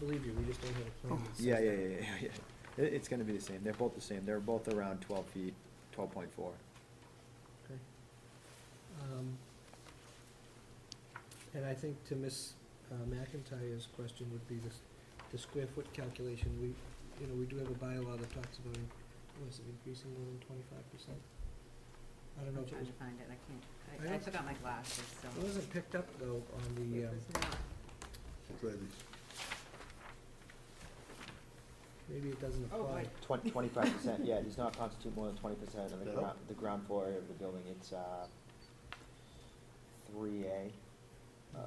believe you, we just don't have a plan that says Yeah, yeah, that. yeah, yeah, yeah. It, it's gonna be the same. They're both the same. They're both around twelve feet, twelve point four. Okay. Um, And I think to Ms. McIntyre's question would be this, the square foot calculation, we, you know, we do have a bylaw that talks about, in- was it increasing more than twenty-five percent? I don't know, I'm if it trying was, to find it, I I can't, I, I don't- took out my glasses, so. it wasn't picked up though on the, It um, was not. maybe it doesn't Oh, apply. right. Twenty, twenty-five percent, yeah, it does not constitute more than twenty percent of the No. ground, the ground floor area of the building, it's, uh, three A, uh,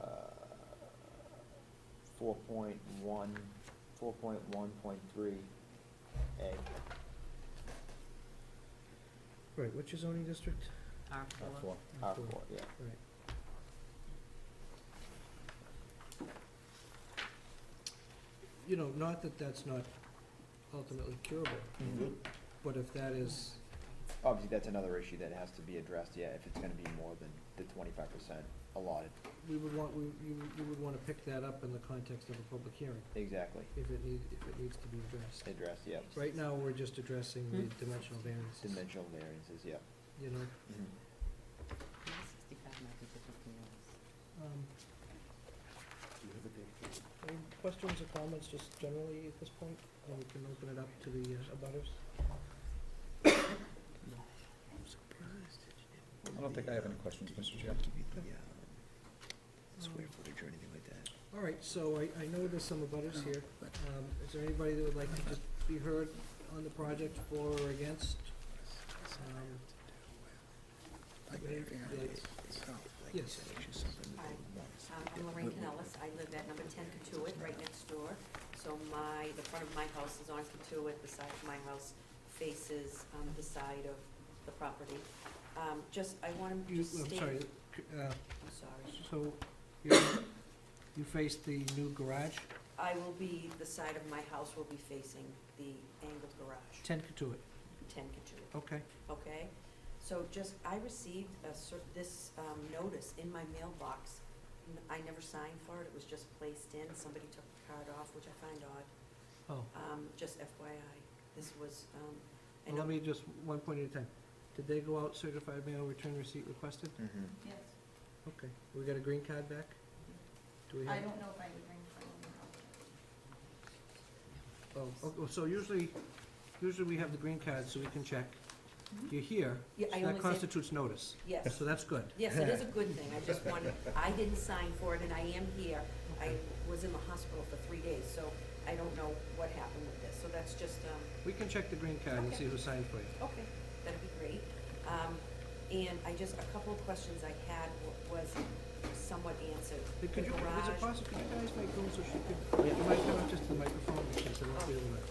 four point one, four point one point three A. Right, what's your zoning district? R R four. four, R four. four, yeah. Right. You know, not that that's not ultimately curable, but if that is, Mm-hmm. Obviously, that's another issue that has to be addressed, yeah, if it's gonna be more than the twenty-five percent allotted, we would want, we, you, would- you would wanna pick that up in the context of a public hearing, exactly, if it need, if it needs to be addressed. addressed, yeah. Right now, we're just addressing the Hmm. dimensional variances, Dimensional variances, yeah. you know, Mhm. Maybe Sixty-five might be different from yours. um, any questions or comments just generally at this point, and we can open it up to the uh, abutters? I'm surprised that you I don't think I have any questions, Mr. Chair. give you the, uh, square footage or anything like that. All right, so I, I know there's some abutters here. Um, is there anybody that would like to just be heard on the project for or against? Um, Yes. Hi, um, I'm Lorraine Canellis, I live at number ten Katuitt, right next door. So my, the front of my house is on Katuitt, the side of my house faces, um, the side of the property. Um, just, I want to You, just I'm state. sorry, uh, I'm sorry. so you, you face the new garage, I will be, the side of my house will be facing the angled garage, ten Katuitt, ten Katuitt. okay? okay? So just, I received a cer- this, um, notice in my mailbox. N- I never signed for it, it was just placed in, somebody took the card off, which I find odd, Oh, um, just FYI. This was, um, I well, let know. me just, one point at a time. Did they go out certified mail, return receipt requested? Mm-hmm, Yes, Okay, we got a green card back? Do we have? I don't know if I would bring from the Oh, oh, so usually, usually we have the green card so we can check. You're here, Mm-hmm. Yeah, so I that only said, constitutes notice, yes, so that's good. yes, it is a good thing, I just wanted, I didn't sign for it and I am here. I Okay. was in the hospital for three days, so I don't know what happened with this, so that's just, um, We can check the green card and see who signed for you. Okay, that'd be great. Um, and I just, a couple of questions I had wa- was somewhat answered. Hey, Could you, The is it garage- possible, could you guys make room so she Oh, could, you might come up just to the microphone because I won't be able to.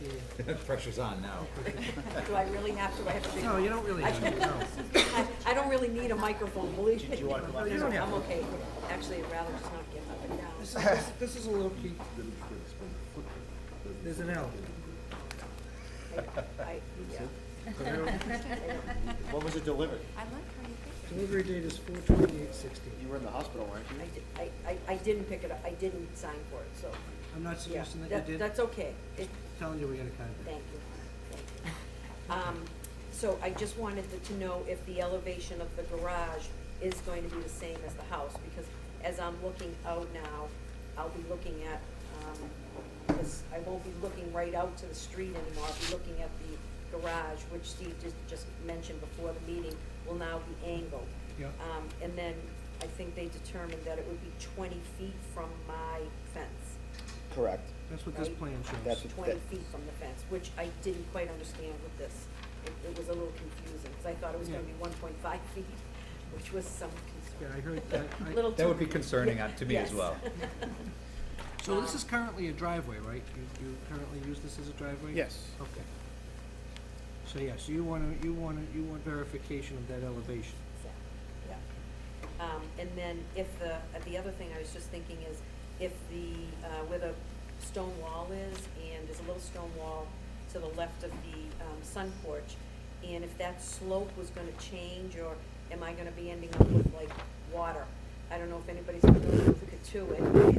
yeah. Pressure's on now. Do I really have to, I have to be? No, you don't really have to, no. I, I don't really need a microphone, believe me. Do you wanna come up You don't here? have I'm to. okay. Actually, I'd rather just not get up and down. This is- this- This is a low key, there's an L. I, I- yeah. When was it delivered? I like how you think. Delivery date is four twenty-eight You sixteen. were in the hospital, weren't I, you? di- I, I, I didn't pick it up, I didn't sign for it, so, I'm not yeah. suggesting that you did, That's okay. It, telling you we got a card back. Thank you, thank you. Um, so I just wanted to- to know if the elevation of the garage is going to be the same as the house, because as I'm looking out now, I'll be looking at, um, this, I won't be looking right out to the street anymore, I'll be looking at the garage, which Steve just, just mentioned before the meeting, will now be angled. Yeah, Um, and then I think they determined that it would be twenty feet from my fence. Correct. that's what this Right. plan shows. That's what- twenty that- feet from the fence, which I didn't quite understand with this. It, it was a little confusing, because I thought it was gonna Yeah. be one point five feet, which was some Yeah, concern. I heard that, I. Little That would too- be concerning on- to me as Yes. well. So this is currently a driveway, right? You, you currently use this as a driveway? Yes. Okay. So, yeah, so you wanna, you wanna, you want verification of that elevation. So, yeah. Um, and then if the, uh, the other thing I was just thinking is, if the, uh, where the stone wall is, and there's a little stone wall to the left of the, um, sun porch, and if that slope was gonna change, or am I gonna be ending up with like water? I don't know if anybody's familiar with Katuitt,